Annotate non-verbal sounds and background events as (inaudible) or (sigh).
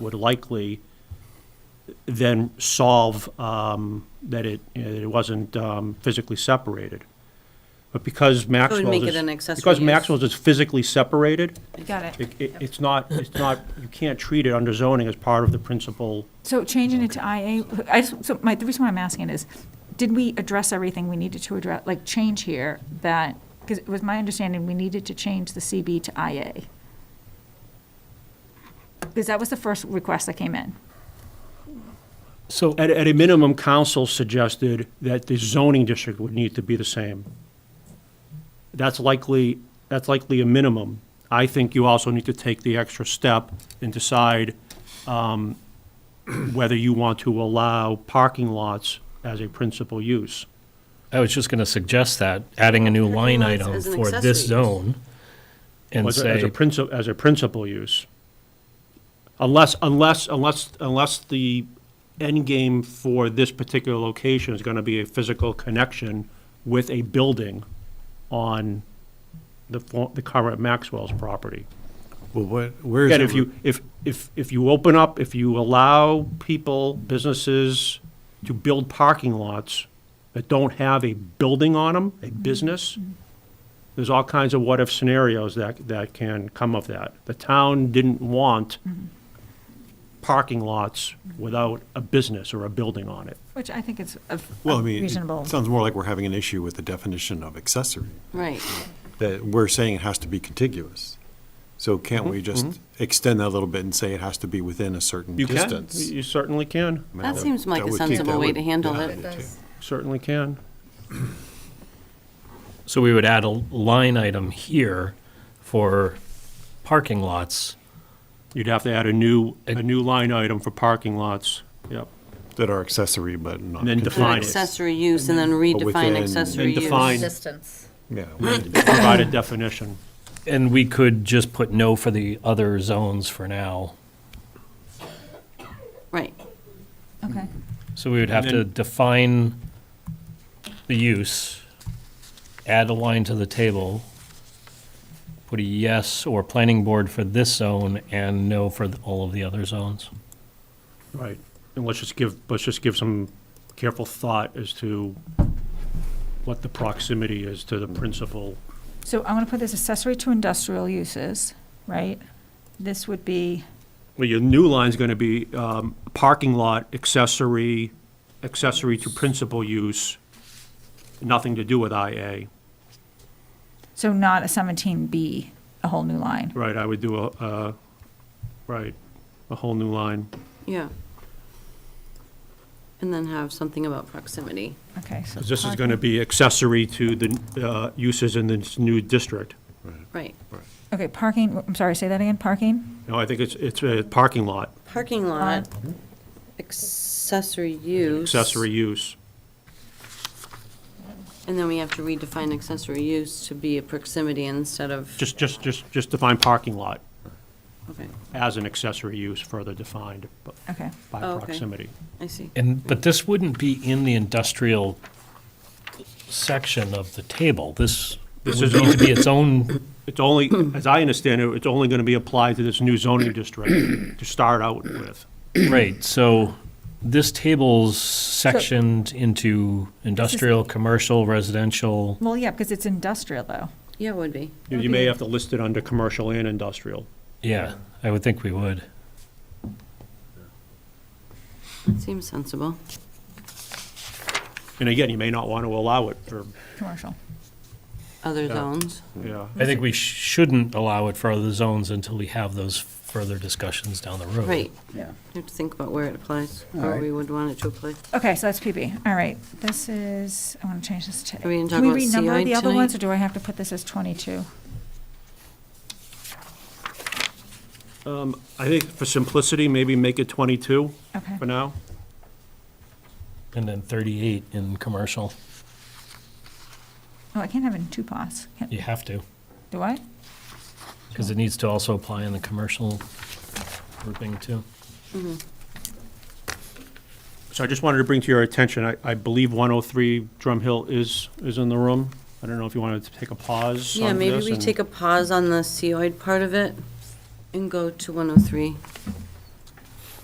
would likely then solve um, that it, you know, that it wasn't um, physically separated. But because Maxwell's is... make it an accessory Because use. Maxwell's is physically separated, Got it. it- it- it's not, it's not, you can't treat it under zoning as part of the principal So changing it to IA, I, just- so my, the reason why I'm asking is, did we address everything we needed to address, like change here that, because it was my understanding we needed to change the CB to IA? Because that was the first request that came in. So, At, at a minimum, council suggested that the zoning district would need to be the same. That's likely, that's likely a minimum. I think you also need to take the extra step and decide um, (clears throat) whether you want to allow parking lots as a principal use. I was just going to suggest that, adding a new line Parking lots item as an for accessory this use. zone and As a- As a say, principal, as a principal use. Unless, unless, unless, unless the end game for this particular location is gonna be a physical connection with a building on the, fo- the current Maxwell's property. Well, what, where is it? Again, if you, if, if, if you open up, if you allow people, businesses to build parking lots that don't have a building on them, a business, there's all kinds of what-if scenarios that, that can come of that. The town didn't want parking lots without a business or a building on it. Which I think is a Well, I a mean, reasonable. it sounds more like we're having an issue with the definition of accessory, Right. that we're saying it has to be contiguous. So can't Mm-hmm, we just extend that a little bit and say it has to be within a certain You can, distance? you certainly can, I mean, That seems like that a would keep- sensible that way would- to handle yeah, it. I do too. certainly can. so we would add a line item here for parking lots. You'd have to add a new, a new line item for parking lots, yep. That are accessory, but not. And then An define it. accessory use and then redefine within- accessory And use. define- distance. Yeah. Provide a definition. And we could just put no for the other zones for now. Right. Okay. So we would have And to define the use, add a line to the table, put a yes or planning board for this zone and no for th- all of the other zones. Right, and let's just give, let's just give some careful thought as to what the proximity is to the principal. So I want to put this accessory to industrial uses, right? This would be, Well, your new line's gonna be, um, parking lot accessory, accessory to principal use, nothing to do with IA. so not a 17B, a whole new line. Right, I would do a, uh, right, a whole new line. Yeah. And then have something about proximity. Okay, so. 'Cause this is parking- gonna be accessory to the, uh, uses in this new district. Right. Okay, parking, I'm sorry, say that again, parking? No, I think it's, it's a parking lot, Parking lot, accessory use. accessory use. And then we have to redefine accessory use to be a proximity instead of, Just, just, just, just define parking lot. okay, as an accessory use further defined b- Okay. by Oh, okay. proximity. I see. And, but this wouldn't be in the industrial section of the table. This This would is need to be its own, It's only, as I understand it, it's only going to be applied to this new zoning district to start out with. right, so this table's sectioned into industrial, commercial, residential. Well, yeah, because it's industrial, though. Yeah, it would be. You- You may have to list it under commercial and industrial. Yeah, I would think we would. Seems sensible. And again, you may not want to allow it for, Commercial. Other zones. yeah. I think we shouldn't allow it for other zones until we have those further discussions down the road. Right. Yeah. You have to think about where it applies, or right. we would want it to apply. Okay, so that's PB. All right, this is, I want to change this to. Are we gonna Can talk about renumber CI the other ones, tonight? or do I have to put this as 22? I think for simplicity, maybe make it 22 Okay. for now. And then 38 in commercial, Oh, I can't have it in two pots, Can't- you have to, do I? because it needs to also apply in the commercial grouping too. So I just wanted to bring to your attention, I, I believe 103 Drum Hill is, is in the room. I don't know if you wanted to take a pause Yeah, on maybe this we and- take a pause on the COID part of it and go to 103.